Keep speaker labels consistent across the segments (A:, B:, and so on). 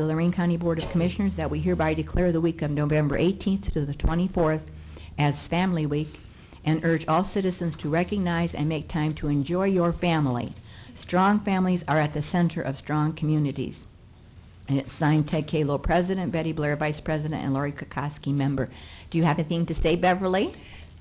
A: the Lorraine County Board of Commissioners that we hereby declare the week of November 18th to the 24th as Family Week and urge all citizens to recognize and make time to enjoy your family. Strong families are at the center of strong communities. And it's signed Ted Kahlo, President, Betty Blair, Vice President, and Lori Kukoski, Member. Do you have anything to say, Beverly?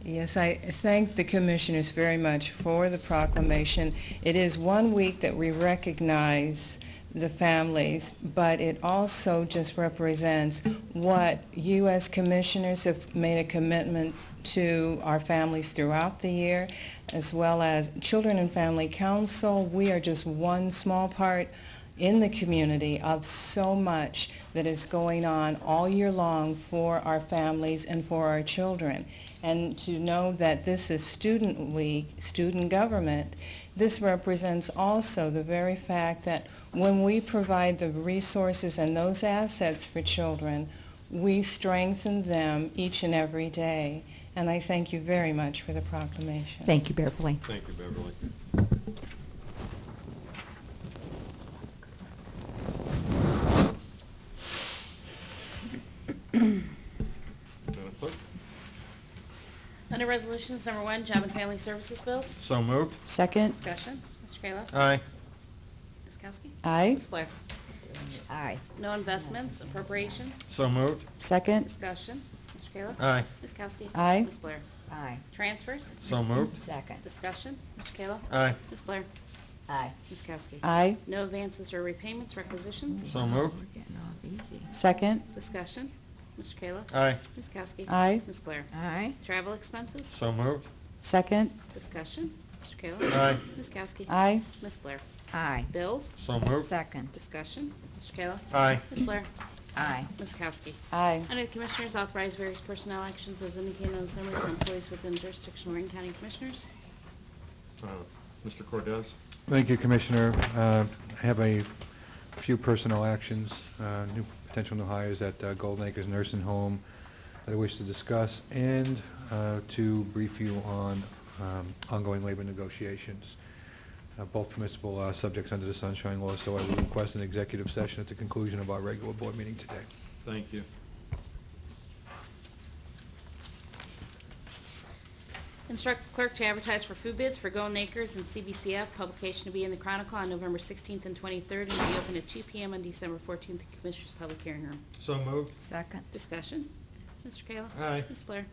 B: Yes, I thank the commissioners very much for the proclamation. It is one week that we recognize the families, but it also just represents what you as commissioners have made a commitment to our families throughout the year, as well as Children and Family Council. We are just one small part in the community of so much that is going on all year long for our families and for our children. And to know that this is Student Week, student government, this represents also the very fact that when we provide the resources and those assets for children, we strengthen them each and every day. And I thank you very much for the proclamation.
A: Thank you, Beverly.
C: Thank you, Beverly. Madam Clerk?
D: Under Resolutions Number One, Job and Family Services Bills.
C: So moved.
E: Second,
D: Discussion. Mr. Kayla.
C: Aye.
D: Ms. Kowski.
E: aye.
D: Ms. Blair.
A: Aye.
D: No investments, appropriations.
C: So moved.
E: Second,
D: Discussion. Mr. Kayla.
C: Aye.
D: Ms. Kowski.
E: Aye.
D: Ms. Blair.
A: Aye.
D: Transfers.
C: So moved.
A: Second.
D: Discussion. Mr. Kayla.
C: Aye.
D: Ms. Blair.
A: Aye.
D: Ms. Kowski.
E: aye.
D: No advances or repayments, requisitions.
C: So moved.
A: We're getting off easy.
E: Second,
D: Discussion. Mr. Kayla.
C: Aye.
D: Ms. Kowski.
E: Aye.
D: Ms. Blair.
A: Aye.
D: Travel expenses.
C: So moved.
E: second,
D: Discussion. Mr. Kayla.
C: Aye.
D: Ms. Kowski.
E: aye.
D: Ms. Blair.
A: Aye.
D: Bills.
C: So moved.
A: Second.
D: Discussion. Mr. Kayla.
C: Aye.
D: Ms. Blair.
A: Aye.
D: Ms. Kowski.
E: Aye.
D: Under the Commissioners, authorize various personnel actions as indicated on the summary for employees within jurisdiction of Lorraine County Commissioners.
C: Uh, Mr. Cordez?
F: Thank you, Commissioner. Uh, I have a few personnel actions, uh, new, potential new hires at uh, Golden Acres Nursing Home that I wish to discuss, and uh, to brief you on um, ongoing labor negotiations. Uh, Both permissible uh, subjects under the Sunshine Law, so I would request an executive session at the conclusion of our regular board meeting today.
C: Thank you.
D: Instruct clerk to advertise for food bids for Golden Acres and CBCF, publication to be in the Chronicle on November 16th and 23rd, and be open at 2 PM on December 14th, in the Commissioners' Public Hearing Room.
C: So moved.
A: Second.
D: Discussion? Mr. Kayla?
C: Aye.
D: Ms. Blair?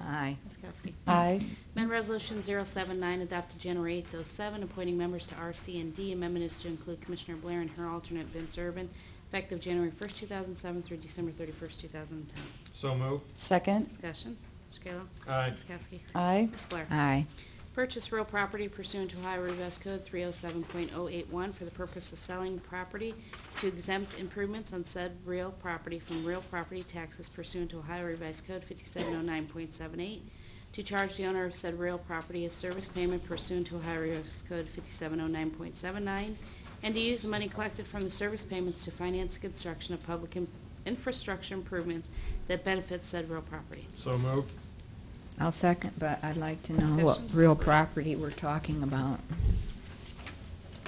A: Aye.
D: Ms. Kowski?
E: Aye.
D: Amendment Resolution 079, adopted January 8th, 07, appointing members to RC&D. Amendment is to include Commissioner Blair and her alternate Vince Urban, effective January 1st, 2007 through December 31st, 2010.
C: So moved.
E: Second,
D: Discussion. Mr. Kayla.
C: Aye.
D: Ms. Kowski.
E: aye.
D: Ms. Blair.
A: Aye.
D: Purchase real property pursuant to Ohio Revised Code 307.081 for the purpose of selling property to exempt improvements on said real property from real property taxes pursuant to Ohio Revised Code 5709.78, to charge the owner of said real property a service payment pursuant to Ohio Revised Code 5709.79, and to use the money collected from the service payments to finance construction of public in- infrastructure improvements that benefit said real property.
C: So moved.
A: I'll second, but I'd like to know what
D: Discussion.
A: real property we're talking about.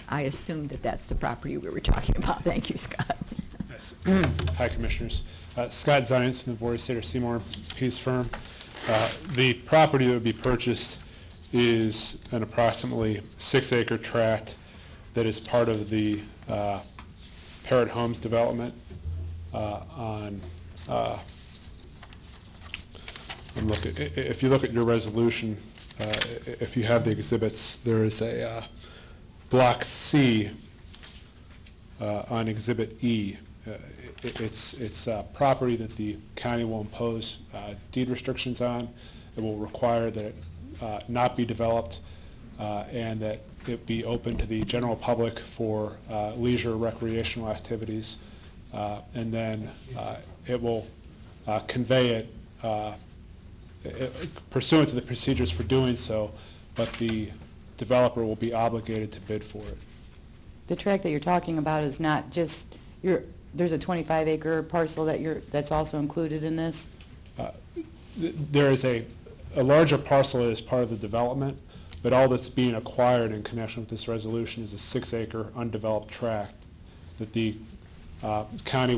A: I assumed that that's the property we were talking about. Thank you, Scott.
G: Yes. Hi, Commissioners. Uh, Scott Zients from the Board of State of Seymour Peace Firm. Uh, The property that would be purchased is an approximately six-acre tract that is part of the uh, Parrot Homes development uh, on, uh, and look, i- i- if you look at your resolution, uh, i- i- if you have the exhibits, there is a uh, Block C uh, on Exhibit E. Uh, i- i- It's, it's uh, property that the county will impose uh, deed restrictions on. It will require that it uh, not be developed uh, and that it be open to the general public for uh, leisure recreational activities. Uh, And then uh, it will uh, convey it uh, pursuant to the procedures for doing so, but the developer will be obligated to bid for it.
E: The tract that you're talking about is not just, your. there's a 25 acre parcel that you're, that's also included in this?
G: Th- There is a, a larger parcel that is part of the development, but all that's being acquired in connection with this resolution is a six-acre undeveloped tract that the Uh, County